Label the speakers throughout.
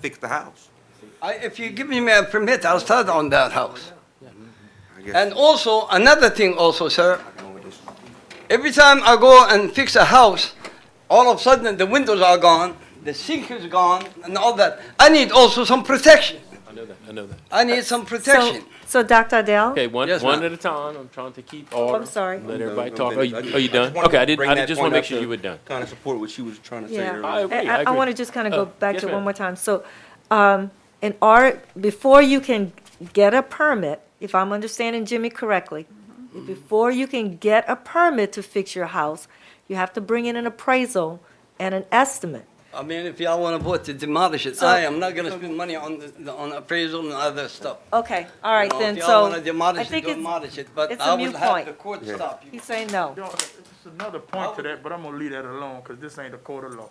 Speaker 1: fix the house.
Speaker 2: I, if you give me a permit, I'll start on that house.
Speaker 1: I guess.
Speaker 2: And also, another thing also, sir,
Speaker 1: I can go with this one.
Speaker 2: every time I go and fix a house, all of a sudden the windows are gone, the sink is gone, and all that. I need also some protection.
Speaker 3: I know that, I know that.
Speaker 2: I need some
Speaker 4: So-
Speaker 2: protection.
Speaker 4: So, Dr. Adele?
Speaker 3: Okay, one,
Speaker 2: Yes,
Speaker 3: one
Speaker 2: ma'am.
Speaker 3: at a time, I'm trying to keep order.
Speaker 4: sorry.
Speaker 3: Let everybody
Speaker 1: Oh, No, no,
Speaker 3: talk. Are you,
Speaker 1: I just-
Speaker 3: are you
Speaker 1: I
Speaker 3: done?
Speaker 1: just wanted
Speaker 3: Okay, I
Speaker 1: to
Speaker 3: did,
Speaker 1: bring
Speaker 3: I
Speaker 1: that
Speaker 3: just wanna
Speaker 1: point
Speaker 3: make
Speaker 1: out
Speaker 3: sure
Speaker 1: to
Speaker 3: you were done.
Speaker 1: Kind of support what she was trying to say
Speaker 4: Yeah.
Speaker 3: I
Speaker 1: earlier.
Speaker 3: agree, I
Speaker 4: I,
Speaker 3: agree.
Speaker 4: want to just kind of
Speaker 3: Uh,
Speaker 4: go back
Speaker 3: yes,
Speaker 4: to it
Speaker 3: ma'am.
Speaker 4: one more time. So, um, in order, before you can get a permit, if I'm understanding Jimmy correctly,
Speaker 3: Mm-hmm.
Speaker 4: before you can get a permit to fix your house, you have to bring in an appraisal and an estimate.
Speaker 2: I mean, if y'all want to vote to demolish it, I am not gonna spend money on, the- on appraisal and other stuff.
Speaker 4: Okay, all right
Speaker 2: You know,
Speaker 4: then.
Speaker 2: If y'all
Speaker 4: So,
Speaker 2: want to
Speaker 4: I
Speaker 2: demolish it,
Speaker 4: think it's,
Speaker 2: demolish it, but
Speaker 4: it's a
Speaker 2: I will
Speaker 4: moot
Speaker 2: have
Speaker 4: point.
Speaker 2: the court
Speaker 1: Yeah.
Speaker 2: stop you.
Speaker 4: he's saying no.
Speaker 5: Y'all, It's another point
Speaker 4: Oh.
Speaker 5: to that, but I'm gonna leave that alone, cause this ain't a court of law,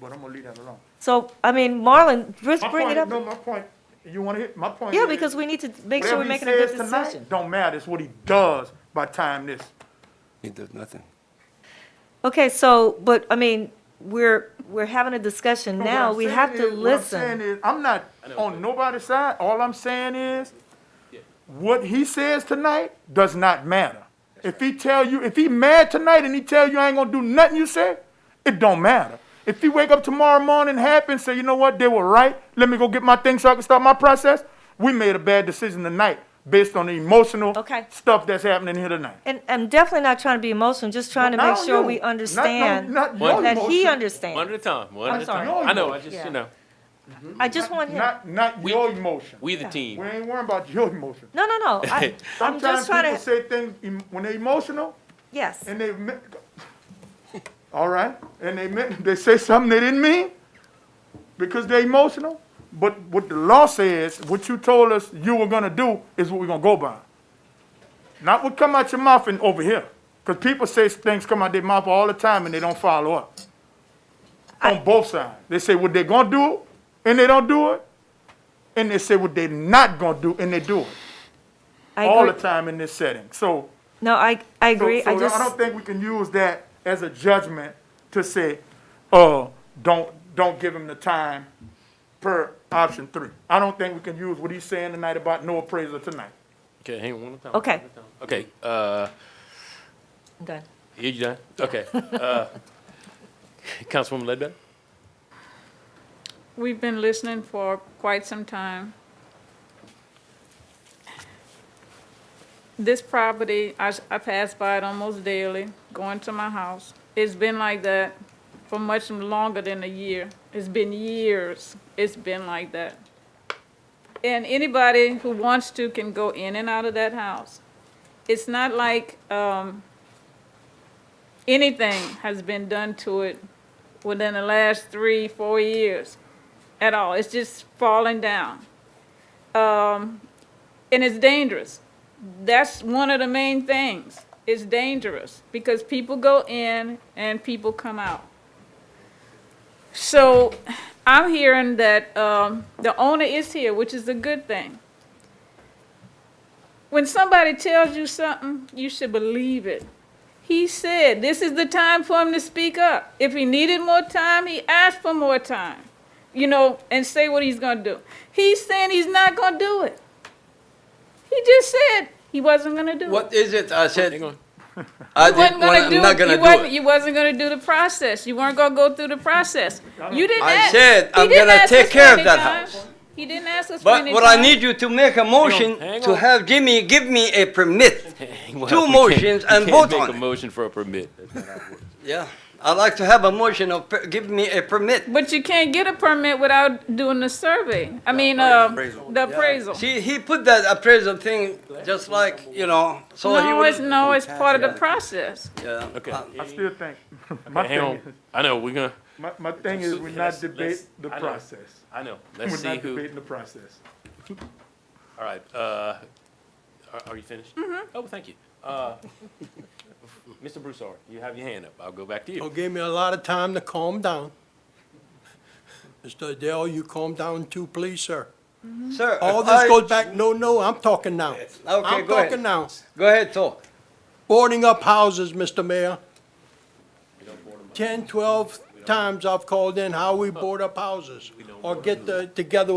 Speaker 5: but I'm gonna leave that alone.
Speaker 4: So, I mean, Marlon, just
Speaker 5: My
Speaker 4: bring it
Speaker 5: point-
Speaker 4: up.
Speaker 5: No, my point, you wanna hit, my point
Speaker 4: Yeah,
Speaker 5: is,
Speaker 4: because we need to make sure
Speaker 5: whatever
Speaker 4: we're
Speaker 5: he
Speaker 4: making a good
Speaker 5: says tonight
Speaker 4: decision.
Speaker 5: Don't matter, it's what he does by time this.
Speaker 1: It does nothing.
Speaker 4: Okay, so, but, I mean, we're, we're having a discussion
Speaker 5: No, what
Speaker 4: now.
Speaker 5: I'm
Speaker 4: We
Speaker 5: saying
Speaker 4: have to
Speaker 5: is- what I'm saying
Speaker 4: listen.
Speaker 5: is, I'm not on nobody's side, all I'm saying is, what he says tonight does not matter. If he tell you, if he mad tonight and he tell you I ain't gonna do nothing you say, it don't matter. If he wake up tomorrow morning happy and say, you know what, they were right, let me go get my things so I can start my process, we made a bad decision tonight based on the emotional
Speaker 4: Okay.
Speaker 5: stuff that's happening here tonight.
Speaker 4: And I'm definitely not trying to be emotional, just trying to
Speaker 5: Not
Speaker 4: make
Speaker 5: on
Speaker 4: sure
Speaker 5: you.
Speaker 4: we
Speaker 5: Not- no,
Speaker 4: understand that
Speaker 5: not your
Speaker 4: he
Speaker 5: emotion.
Speaker 3: One at
Speaker 4: understands.
Speaker 3: a time, one
Speaker 4: I'm
Speaker 3: at a
Speaker 4: sorry.
Speaker 3: time. I know, I
Speaker 4: Yeah.
Speaker 3: just, you know,
Speaker 4: I just want him,
Speaker 5: Not, not
Speaker 3: We-
Speaker 5: your emotion.
Speaker 3: we the
Speaker 5: We
Speaker 3: team.
Speaker 5: ain't worrying about your emotion.
Speaker 4: no, no, no. I- I'm
Speaker 5: Sometimes
Speaker 4: just trying
Speaker 5: people
Speaker 4: to,
Speaker 5: say things em- when they're emotional,
Speaker 4: yes.
Speaker 5: and they meant, all right, and they meant, they say something they didn't mean because they're emotional. But what the law says, what you told us you were gonna do is what we're gonna go by. Not what come out your mouth and over here. Because people say things come out their mouth all the time and they don't follow up. On both sides. They say what they're gonna do and they don't do it. And they say what they're not gonna do and they do it.
Speaker 4: I
Speaker 5: All the
Speaker 4: agree.
Speaker 5: time in this setting. So
Speaker 4: No, I, I
Speaker 5: so-
Speaker 4: agree.
Speaker 5: So,
Speaker 4: I
Speaker 5: I don't
Speaker 4: just,
Speaker 5: think we can use that as a judgment to say, uh, don't don't give him the time per option three. I don't think we can use what he's saying tonight about no appraisal tonight.
Speaker 3: okay, hang on one at a time.
Speaker 4: Okay.
Speaker 3: one at a time. Okay, uh,
Speaker 4: I'm done.
Speaker 3: you you done? Okay, uh, Councilwoman Ledbetter?
Speaker 6: We've been listening for quite some time. This property, I, s- I pass by it almost daily, going to my house. It's been like that for much longer than a year. It's been years. It's been like that. And anybody who wants to can go in and out of that house. It's not like, um, anything has been done to it within the last three, four years at all. It's just falling down. Um, and it's dangerous. That's one of the main things. It's dangerous because people go in and people come out. So I'm hearing that um, the owner is here, which is a good thing. When somebody tells you something, you should believe it. He said, this is the time for him to speak up. If he needed more time, he asked for more time, you know, and say what he's going to do. He's saying he's not going to do it. He just said he wasn't going to do it.
Speaker 2: What is it? I said,
Speaker 3: Hang on.
Speaker 2: I
Speaker 6: You wasn't
Speaker 2: didn't,
Speaker 6: gonna
Speaker 2: wanna-
Speaker 6: do
Speaker 2: I'm not
Speaker 6: it.
Speaker 2: gonna
Speaker 6: You
Speaker 2: do
Speaker 6: wasn't,
Speaker 2: it.
Speaker 6: you wasn't gonna do the process. You weren't gonna go through the process. You didn't
Speaker 2: I
Speaker 6: ask.
Speaker 2: said,
Speaker 6: he
Speaker 2: I'm
Speaker 6: didn't
Speaker 2: gonna
Speaker 6: ask
Speaker 2: take
Speaker 6: us
Speaker 2: care of
Speaker 6: many
Speaker 2: that
Speaker 6: times.
Speaker 2: house.
Speaker 6: He didn't ask us for
Speaker 2: But
Speaker 6: any
Speaker 2: what I
Speaker 6: time.
Speaker 2: need you to make a motion
Speaker 3: hang
Speaker 2: to
Speaker 3: on.
Speaker 2: have Jimmy give me a permit.
Speaker 3: Well,
Speaker 2: Two
Speaker 3: we can't-
Speaker 2: motions
Speaker 3: we
Speaker 2: and
Speaker 3: can't
Speaker 2: vote on
Speaker 3: Make a
Speaker 2: it.
Speaker 3: motion for a permit.
Speaker 2: Yeah, I'd like to have a motion of, per- give me a permit.
Speaker 6: But you can't get a permit without doing the survey. I mean, uh,
Speaker 1: appraisal.
Speaker 6: the appraisal.
Speaker 2: See, he put that appraisal thing just like, you know, so he
Speaker 6: No, it's,
Speaker 2: would.
Speaker 6: no, it's part of the process.
Speaker 2: Yeah.
Speaker 3: Okay.
Speaker 2: Uh,
Speaker 5: I still think, my
Speaker 3: Hang
Speaker 5: thing,
Speaker 3: on, I know, we're gonna,
Speaker 5: my, my thing is we not
Speaker 3: Let's-
Speaker 5: debate
Speaker 3: let's-
Speaker 5: the
Speaker 3: I know.
Speaker 5: process.
Speaker 3: I know,
Speaker 5: We're
Speaker 3: let's see
Speaker 5: not
Speaker 3: who,
Speaker 5: debating the process.
Speaker 3: all right, uh, are, are you finished? Mm-hmm. Oh, thank you. Uh, Mr. Broussard, you have your hand up, I'll go back to you.
Speaker 7: Well, gave me a lot of time to calm down. Mr. Adele, you calm down too, please, sir.
Speaker 2: Sir, if
Speaker 7: All this
Speaker 2: I-
Speaker 7: goes back, no, no, I'm talking now.
Speaker 2: go
Speaker 7: I'm
Speaker 2: ahead.
Speaker 7: talking now.
Speaker 2: Go ahead, talk.
Speaker 7: Boarding up houses, Mr. Mayor. 10, 12, 13 times I've called in how we board up houses or get the- together with